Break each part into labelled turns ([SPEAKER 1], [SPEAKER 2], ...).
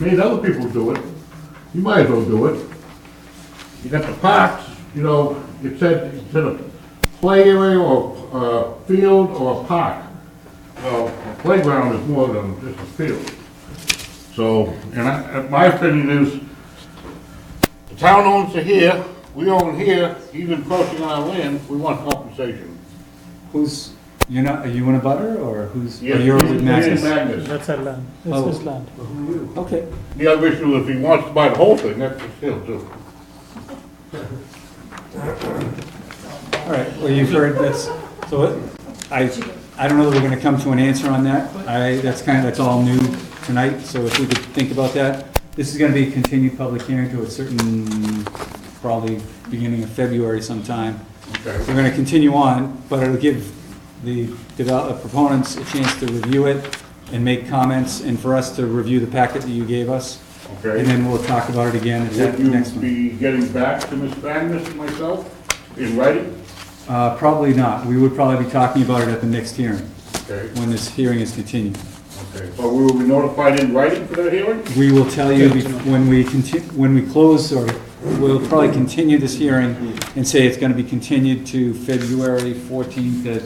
[SPEAKER 1] made other people do it, you might as well do it. You got the parks, you know, it said, it said a play area or, uh, field or a park. Well, a playground is more than just a field. So, and I, and my opinion is, the town owns it here, we own here, he's encroaching on our land, we want compensation.
[SPEAKER 2] Who's, you're not, are you in a butter, or who's, or
[SPEAKER 1] Yes,
[SPEAKER 2] you're
[SPEAKER 1] he- he is
[SPEAKER 2] with Magnus?
[SPEAKER 1] Magnus.
[SPEAKER 3] That's our land, this
[SPEAKER 2] Oh.
[SPEAKER 3] is land.
[SPEAKER 2] Okay,
[SPEAKER 1] The other issue, if he wants to buy the whole thing, that's his deal too.
[SPEAKER 2] all right, well, you've heard this, so it- I, I don't know that we're gonna come to an answer on that. I, that's kind of, that's all new tonight, so if we could think about that. This is gonna be a continued public hearing to a certain, probably beginning of February sometime.
[SPEAKER 1] Okay.
[SPEAKER 2] We're gonna continue on, but it'll give the develop, proponents a chance to review it and make comments, and for us to review the packet that you gave us.
[SPEAKER 1] Okay.
[SPEAKER 2] And then we'll talk about it again at
[SPEAKER 1] Would
[SPEAKER 2] that
[SPEAKER 1] you
[SPEAKER 2] next one.
[SPEAKER 1] be getting back to Ms. Magnus and myself in writing?
[SPEAKER 2] Uh, probably not. We would probably be talking about it at the next hearing,
[SPEAKER 1] Okay,
[SPEAKER 2] when this hearing is continued.
[SPEAKER 1] okay, but we will be notified in writing for that hearing?
[SPEAKER 2] We will tell you bef- when we continue, when we close, or we'll probably continue this hearing and say it's gonna be continued to February fourteenth at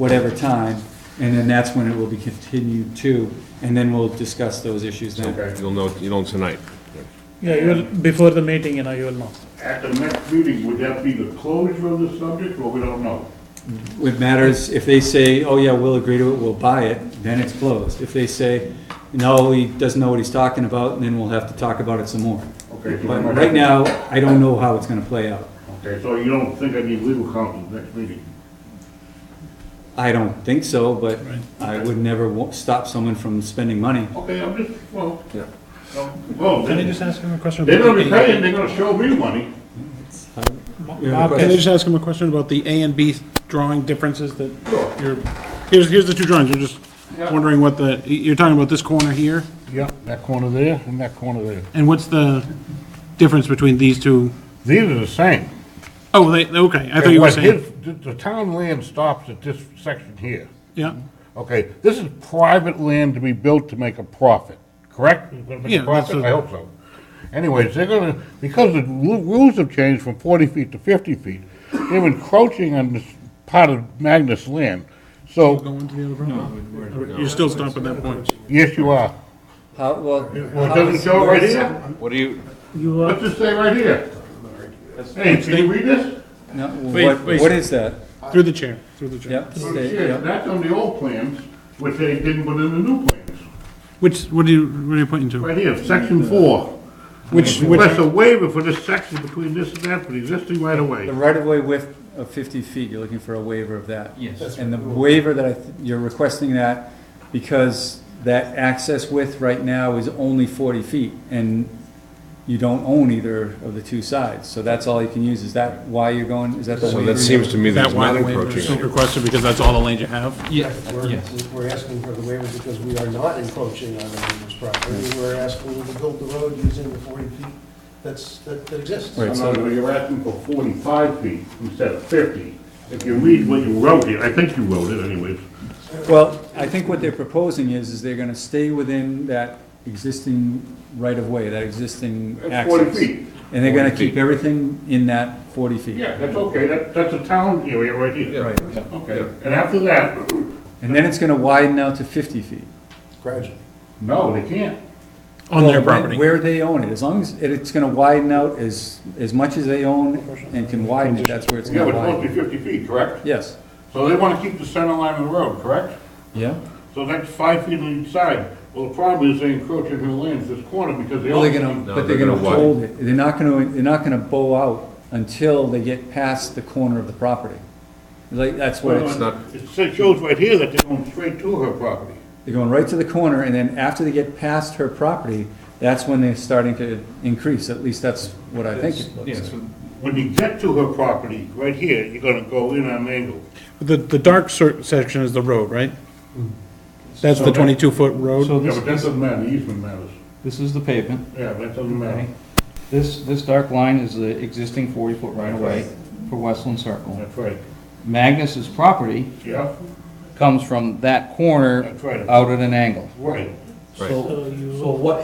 [SPEAKER 2] whatever time, and then that's when it will be continued to, and then we'll discuss those issues then.
[SPEAKER 1] Okay,
[SPEAKER 4] You'll know, you know tonight.
[SPEAKER 3] Yeah, you will, before the meeting, you know, you will know.
[SPEAKER 1] at the next meeting, would that be the closure of the subject, or we don't know?
[SPEAKER 2] What matters, if they say, oh yeah, we'll agree to it, we'll buy it, then it's closed. If they say, no, he doesn't know what he's talking about, then we'll have to talk about it some more.
[SPEAKER 1] Okay, so
[SPEAKER 2] But
[SPEAKER 1] I-
[SPEAKER 2] right now, I don't know how it's gonna play out.
[SPEAKER 1] Okay, so you don't think I need legal counsel next meeting?
[SPEAKER 2] I don't think so, but I would never wa- stop someone from spending money.
[SPEAKER 1] Okay, I'm just, well,
[SPEAKER 4] Yeah.
[SPEAKER 1] um, well,
[SPEAKER 3] Can I
[SPEAKER 1] they-
[SPEAKER 3] just ask him a question?
[SPEAKER 1] they're
[SPEAKER 3] about
[SPEAKER 1] gonna be
[SPEAKER 3] the-
[SPEAKER 1] paying, they're gonna show me money.
[SPEAKER 3] Ma-
[SPEAKER 2] You have a
[SPEAKER 3] Mark,
[SPEAKER 2] question?
[SPEAKER 5] uh, Can I just ask him a question about the A and B drawing differences that
[SPEAKER 1] Sure.
[SPEAKER 5] you're, here's, here's the two drawings, I'm just
[SPEAKER 1] Yeah.
[SPEAKER 5] wondering what the, you're talking about this corner here,
[SPEAKER 6] Yeah, that corner there and that corner there.
[SPEAKER 5] and what's the difference between these two?
[SPEAKER 6] These are the same.
[SPEAKER 5] Oh, they, okay, I thought you were
[SPEAKER 6] What
[SPEAKER 5] saying,
[SPEAKER 6] his- The the town land stops at this section here.
[SPEAKER 5] yeah,
[SPEAKER 6] Okay, this is private land to be built to make a profit, correct? It's gonna make a
[SPEAKER 5] Yeah, that's
[SPEAKER 6] profit?
[SPEAKER 5] what-
[SPEAKER 6] I hope so. Anyways, they're gonna, because the lu- rules have changed from forty feet to fifty feet, they're encroaching on this part of Magnus land. So,
[SPEAKER 5] go into the other problem. You're still stuck at that point.
[SPEAKER 6] yes, you are.
[SPEAKER 2] How, well,
[SPEAKER 1] Well, it doesn't show right here?
[SPEAKER 4] What do you,
[SPEAKER 3] You are,
[SPEAKER 1] What's it say right here? Hey, can you read this?
[SPEAKER 2] no,
[SPEAKER 5] Wait,
[SPEAKER 2] what,
[SPEAKER 5] wait.
[SPEAKER 2] what is that?
[SPEAKER 5] Through the chair, through the chair.
[SPEAKER 2] Yep,
[SPEAKER 1] Oh,
[SPEAKER 2] stay-
[SPEAKER 1] shit,
[SPEAKER 2] yep.
[SPEAKER 1] That's on the old plans, which they didn't put in the new plans.
[SPEAKER 5] Which, what are you, what are you pointing to?
[SPEAKER 1] Right here, section four.
[SPEAKER 5] Which,
[SPEAKER 1] Request
[SPEAKER 5] which,
[SPEAKER 1] a waiver for this section between this and that, for the existing right of way.
[SPEAKER 2] The right-of-way width of fifty feet, you're looking for a waiver of that. Yes. And the waiver that I, th- you're requesting that because that access width right now is only forty feet and you don't own either of the two sides, so that's all you can use. Is that why you're going, is that the
[SPEAKER 4] so
[SPEAKER 2] waiver?
[SPEAKER 4] that seems to me that
[SPEAKER 5] that
[SPEAKER 4] it's not
[SPEAKER 5] wide waiver is
[SPEAKER 4] encroaching.
[SPEAKER 5] requested because that's all the land you have?
[SPEAKER 7] We're, we're asking for the waiver because we are not encroaching on the neighbor's property. We're asking them to build the road using the 40 feet that's, that that exists.
[SPEAKER 2] Right.
[SPEAKER 1] No, no, you're asking for forty-five feet instead of fifty. If you read what you wrote here, I think you wrote it anyways.
[SPEAKER 2] Well, I think what they're proposing is, is they're gonna stay within that existing right-of-way, that existing
[SPEAKER 1] That's
[SPEAKER 2] access.
[SPEAKER 1] 40 feet.
[SPEAKER 2] And they're gonna
[SPEAKER 4] 40
[SPEAKER 2] keep
[SPEAKER 4] feet.
[SPEAKER 2] everything in that forty feet.
[SPEAKER 1] Yeah, that's okay, that, that's a town area right here.
[SPEAKER 2] Right,
[SPEAKER 1] Okay, and after that,
[SPEAKER 2] and then it's gonna widen out to fifty feet.
[SPEAKER 7] Gradually.
[SPEAKER 1] no, they can't.
[SPEAKER 5] On their
[SPEAKER 2] Well,
[SPEAKER 5] property.
[SPEAKER 2] Where they own it, as long as, it- it's gonna widen out as, as much as they own and can widen it, that's where it's
[SPEAKER 1] Yeah, but
[SPEAKER 2] gonna
[SPEAKER 1] it's supposed
[SPEAKER 2] widen.
[SPEAKER 1] to be fifty feet, correct?
[SPEAKER 2] Yes,
[SPEAKER 1] So they wanna keep the center line of the road, correct?
[SPEAKER 2] yeah.
[SPEAKER 1] So that's five feet on each side. Well, the problem is they encroach on her lands this corner because they
[SPEAKER 2] Well,
[SPEAKER 1] all.
[SPEAKER 2] they're gonna, but they're
[SPEAKER 4] they're
[SPEAKER 2] gonna
[SPEAKER 4] gonna widen.
[SPEAKER 2] hold it, they're not gonna, they're not gonna bow out until they get past the corner of the property. Like, that's what it's.
[SPEAKER 4] it's not-
[SPEAKER 1] It says- shows right here that they're going straight to her property.
[SPEAKER 2] They're going right to the corner, and then after they get past her property, that's when they're starting to increase, at least that's what I think. it looks like.
[SPEAKER 1] When you get to her property, right here, you're gonna go in on an angle.
[SPEAKER 5] The, the dark cer- section is the road, right? That's the twenty-two foot road?
[SPEAKER 8] So
[SPEAKER 1] Yeah,
[SPEAKER 8] this,
[SPEAKER 1] but that doesn't matter, The easement matters.
[SPEAKER 8] this is the pavement,
[SPEAKER 1] Yeah, that doesn't matter.
[SPEAKER 8] okay? This, this dark line is the existing 40-foot right-of-way for Westland Circle.
[SPEAKER 1] That's right.
[SPEAKER 8] Magnus's property
[SPEAKER 1] Yeah,
[SPEAKER 8] comes from that corner
[SPEAKER 2] Uh,
[SPEAKER 1] That's right.
[SPEAKER 8] out at an angle.
[SPEAKER 1] right.
[SPEAKER 3] so you.
[SPEAKER 2] So what